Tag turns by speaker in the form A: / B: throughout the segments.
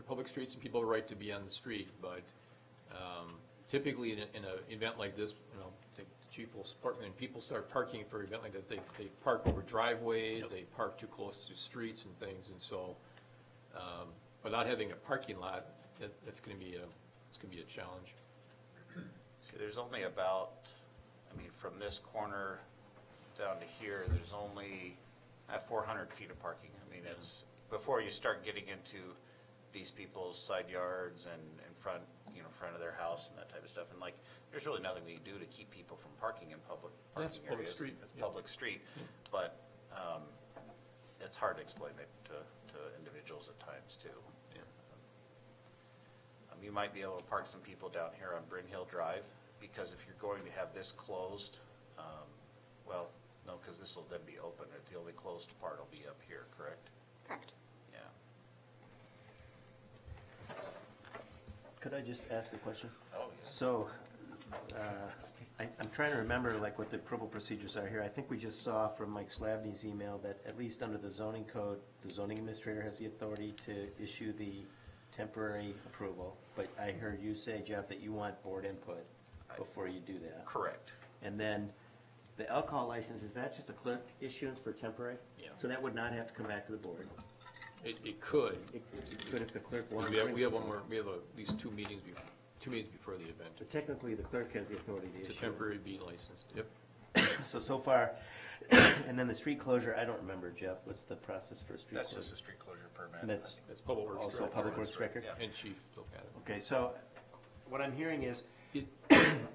A: public streets and people have a right to be on the street, but um, typically in, a- in an event like this, you know, the chief will, support- when people start parking for an event like this, they, they park over driveways, they park too close to streets and things, and so, um, without having a parking lot, that, that's gonna be a, it's gonna be a challenge.
B: See, there's only about, I mean, from this corner down to here, there's only uh, 400 feet of parking. I mean, it's, before you start getting into these people's side yards and in front, you know, front of their house and that type of stuff. And like, there's really nothing we can do to keep people from parking in public
A: Yeah, it's
B: parking areas.
A: public street,
B: It's
A: yeah.
B: public street, but um, it's hard to explain it to, to individuals at times too. Um, You might be able to park some people down here on Bryn Hill Drive, because if you're going to have this closed, um, well, no, because this will then be open, the only closed part will be up here, correct?
C: Correct.
B: Yeah.
D: Could I just ask a question?
B: Oh, yes.
D: So, uh, I- I'm trying to remember like what the approval procedures are here. I think we just saw from Mike Slavny's email that at least under the zoning code, the zoning administrator has the authority to issue the temporary approval. But I heard you say, Jeff, that you want board input before you do that.
B: Correct.
D: And then the alcohol license, is that just a clerk issuance for temporary?
A: Yeah.
D: So that would not have to come back to the board?
A: It, it could,
D: It it could if the clerk wanted.
A: we have,
D: to.
A: we have one more, we have at least two meetings, bef- two meetings before the event.
D: But technically, the clerk has the authority to
A: It's
D: issue.
A: a temporary B license, yep.
D: So, so far, and then the street closure, I don't remember, Jeff, what's the process for street
B: That's
D: closure?
B: just a street closure permit.
D: And that's
A: It's Public Works
D: also
A: Director
D: Public Works Record?
B: Yeah.
A: And chief, look at it.
D: Okay, so what I'm hearing is,
A: It-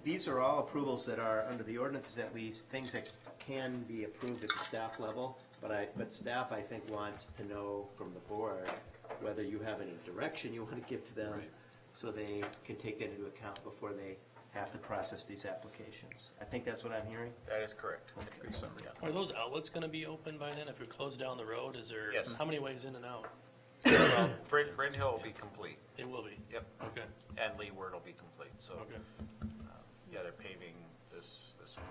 D: these are all approvals that are, under the ordinances at least, things that can be approved at the staff level, but I, but staff, I think, wants to know from the board whether you have any direction you want to give to them,
A: Right.
D: so they can take that into account before they have to process these applications. I think that's what I'm hearing?
B: That is correct.
A: Good summary.
E: Are those outlets gonna be open by then? If you're closed down the road, is there,
B: Yes.
E: how many ways in and out?
B: Well, Bryn, Bryn Hill will be complete,
E: It will be.
B: yep,
E: Okay,
B: and Leeward will be complete, so. uh,
E: okay.
B: Yeah, they're paving this, this one.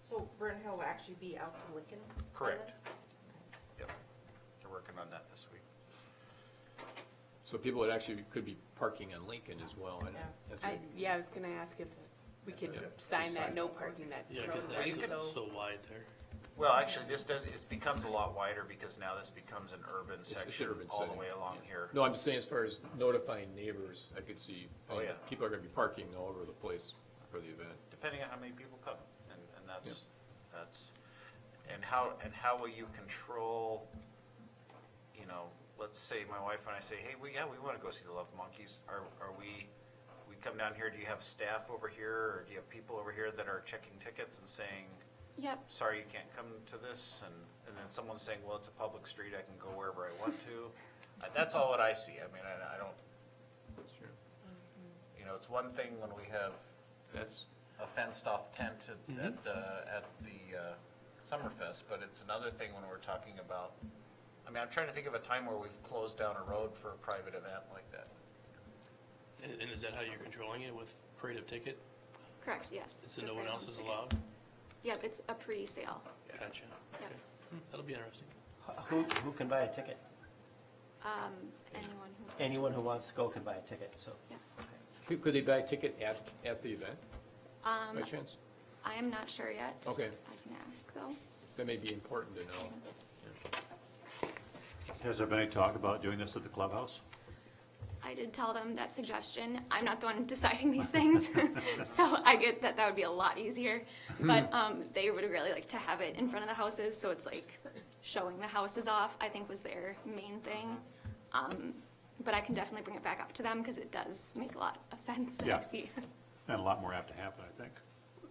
C: So Burn Hill will actually be out to Lincoln? by then?
B: Correct. Yep, they're working on that this week.
A: So people would actually, could be parking on Lincoln as well, and
C: Yeah.
A: that's
F: I,
A: what-
F: yeah, I was gonna ask if we could
A: Yeah.
F: sign that no parking that
E: Yeah,
F: road
E: cause that's
F: sign,
E: so-
F: so,
E: so wide there.
B: Well, actually, this does, it becomes a lot wider because now this becomes an urban
A: it's- it's
B: section
A: urban
B: all the
A: setting,
B: way along
A: yeah.
B: here.
A: No, I'm just saying as far as notifying neighbors, I could see, I
B: Oh,
A: mean,
B: yeah.
A: people are gonna be parking all over the place for the event.
B: Depending on how many people come, and, and that's, that's, and how, and how will you control, you know, let's say my wife and I say, hey, we, yeah, we wanna go see the Love Monkeys, are, are we, we come down here, do you have staff over here, or do you have people over here that are checking tickets and saying,
C: Yep.
B: sorry, you can't come to this, and, and then someone's saying, well, it's a public street, I can go wherever I want to. Uh, That's all what I see, I mean, I, I don't,
A: Sure.
B: you know, it's one thing when we have
A: That's,
B: a fenced-off tent at, at, uh, at the uh, Summerfest, but it's another thing when we're talking about, I mean, I'm trying to think of a time where we've closed down a road for a private event like that.
E: And, and is that how you're controlling it with parade of ticket?
C: Correct, yes.
E: So no one else is
C: Tickets.
E: allowed?
C: Yep, it's a pre-sale.
E: Gotcha. Okay. Hmm, That'll be interesting.
D: Who, who can buy a ticket?
C: Um, anyone who,
D: Anyone who wants to go can buy a ticket, so.
C: yeah.
A: could could they buy a ticket at, at the event, by
C: Um,
A: chance?
C: I am not sure yet.
A: Okay.
C: I can ask though.
A: That may be important to know.
G: Has there been any talk about doing this at the clubhouse?
C: I did tell them that suggestion. I'm not the one deciding these things. So I get that that would be a lot easier. But, um, they would really like to have it in front of the houses, so it's like showing the houses off, I think was their main thing. Um, but I can definitely bring it back up to them because it does make a lot of sense. and I
G: Yeah.
C: see.
G: And a lot more apt to happen, I think.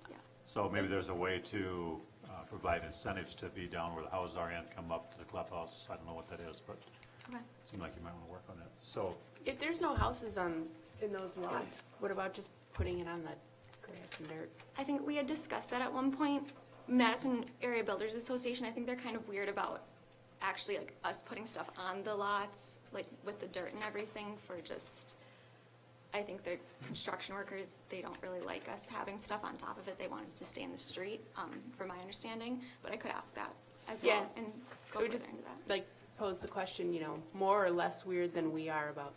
C: Yeah.
G: So maybe there's a way to uh, provide incentives to be down where the houses are and come up to the clubhouse. I don't know what that is, but
C: Okay.
G: it seemed like you might want to work on it. So
F: if there's no houses on in those lots, what about just putting it on the grass and dirt?
C: I think we had discussed that at one point. Madison Area Builders Association, I think they're kind of weird about actually like us putting stuff on the lots, like with the dirt and everything for just, I think they're construction workers, they don't really like us having stuff on top of it. They want us to stay in the street, um, from my understanding, but I could ask that as well
F: Yeah.
C: and
F: Could
C: go
F: we
C: further
F: just-
C: into that.
F: Like pose the question, you know, more or less weird than we are about